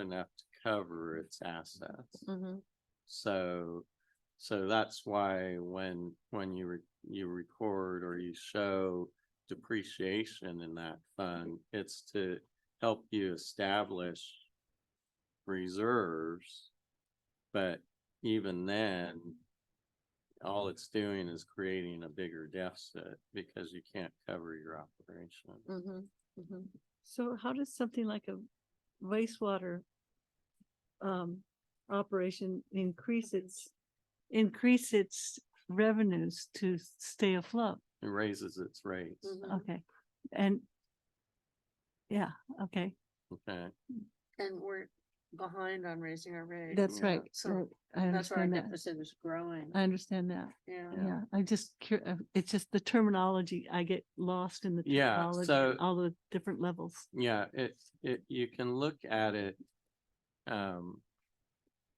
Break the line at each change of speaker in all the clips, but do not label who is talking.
enough to cover its assets.
Mhm.
So, so that's why when, when you, re- you record or you show depreciation in that fund, it's to help you establish reserves. But even then, all it's doing is creating a bigger deficit because you can't cover your operation.
Mhm. Mhm.
So how does something like a wastewater um, operation increase its, increase its revenues to stay afloat?
It raises its rates,
Mhm.
Okay, and yeah, okay,
okay?
And we're behind on raising our rate.
that's
Yeah.
right.
So
I- I
That's why our
understand that.
deficit is growing.
I understand that.
Yeah.
Yeah.
Yeah, I just, cur- uh, it's just the terminology. I get lost in the
Yeah,
terminology,
so-
and all the different levels.
Yeah, it, it, you can look at it. Um,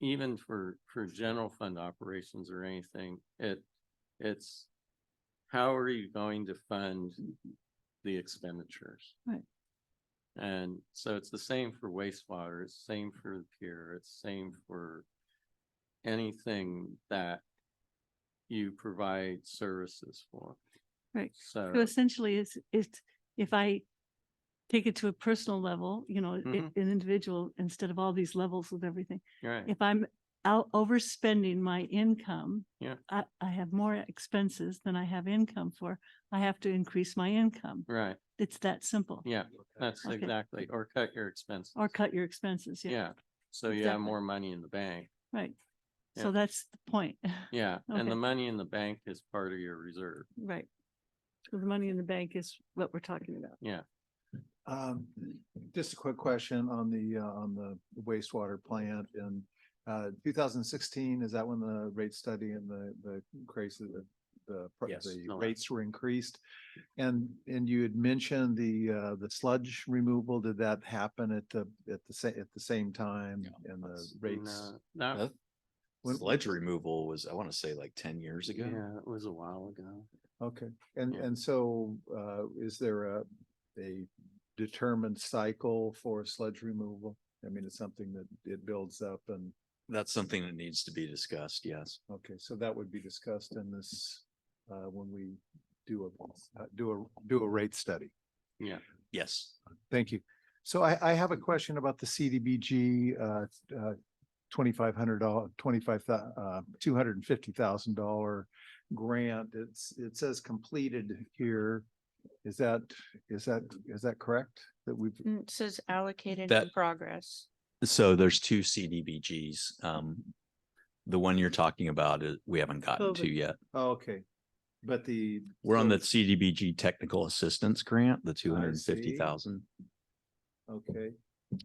even for, for general fund operations or anything, it, it's. How are you going to fund the expenditures?
Right.
And so it's the same for wastewater, it's same for the pier, it's same for. Anything that you provide services for.
Right.
So.
So essentially, it's, it's, if I take it to a personal level, you know, i-
Mhm.
an individual, instead of all these levels with everything,
Right.
if I'm out overspending my income,
Yeah.
I, I have more expenses than I have income for. I have to increase my income.
Right,
It's that simple.
yeah, that's
Okay.
exactly, or cut your expenses.
Or cut your expenses. Yeah,
Yeah, so you have
Exactly.
more money in the bank.
right.
Yeah.
So that's the point,
Yeah, and the
Okay.
money in the bank is part of your reserve.
right? So The money in the bank is what we're talking about.
Um, just a quick question on the, uh, on the wastewater plant in, uh, two thousand sixteen, is that when the rate study and the, the increases, the- the, pr-
Yes,
the
no.
rates were increased? And, and you had mentioned the, uh, the sludge removal, did that happen at the, at the sa- at the same time and the
that's-
rates?
No,
Huh?
that,
When-
Sledge removal was, I want to say like ten years ago.
yeah, it was a while ago.
Okay, and,
Yeah.
and so, uh, is there a, a determined cycle for sludge removal? I mean, it's something that it builds up and
That's something that needs to be discussed, yes.
Okay, so that would be discussed in this, uh, when we do a, uh, do a, do a rate study.
Yes.
Thank you. So I, I have a question about the CDBG, uh, uh, twenty-five hundred dollar, twenty-five, uh, two hundred and fifty thousand dollar grant. It's, it says completed here. Is that, is that, is that correct? That we've,
Mm, It says allocated in
That-
progress.
So there's two CDBGs. Um, the one you're talking about, is we haven't gotten to
COVID.
yet.
oh, okay, but the.
We're on the
so-
CDBG Technical Assistance Grant, the two hundred and fifty thousand.
Okay,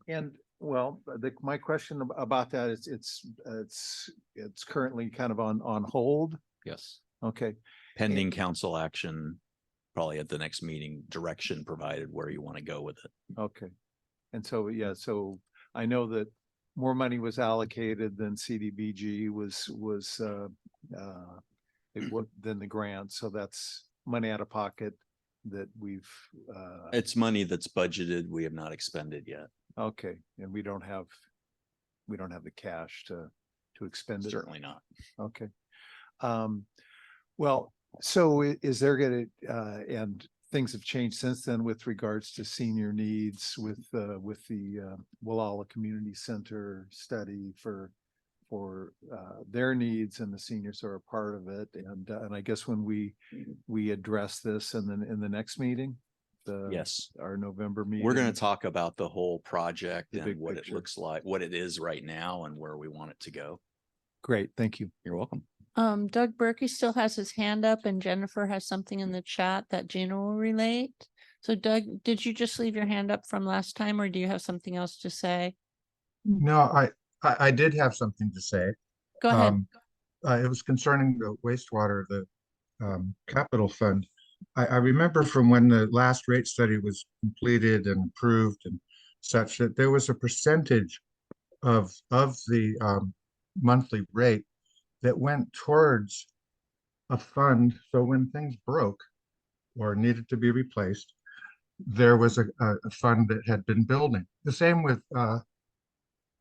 and well, the, my question ab- about that is it's, it's, it's currently kind of on, on hold.
Yes.
Okay,
Pending council action, probably at the next meeting, direction provided where you want to go with it.
okay. And so, yeah, so I know that more money was allocated than CDBG was, was, uh, uh, it wa- than the grant, so that's money out of pocket that we've, uh,
It's money that's budgeted. We have not expended yet.
okay, and we don't have, we don't have the cash to, to expend it.
Certainly not.
Okay. Um, well, so i- is there gonna, uh, and things have changed since then with regards to senior needs with, uh, with the, uh, Wallala Community Center study for, for, uh, their needs and the seniors are a part of it. And, uh, and I guess when we,
Mm-hmm.
we address this and then in the next meeting, the.
Yes.
Our November meeting.
We're gonna talk about the whole project
The
and
big
what it
picture.
looks like, what it is right now and where we want it to go.
Great, thank you.
You're welcome.
Um, Doug Berkey still has his hand up and Jennifer has something in the chat that Gina will relate. So Doug, did you just leave your hand up from last time or do you have something else to say?
No, I, I, I did have something to say.
Go ahead.
Um, uh, it was concerning the wastewater, the, um, capital fund. I, I remember from when the last rate study was completed and approved and such that there was a percentage of, of the, um, monthly rate that went towards a fund. So when things broke or needed to be replaced, there was a, a, a fund that had been building. The same with, uh,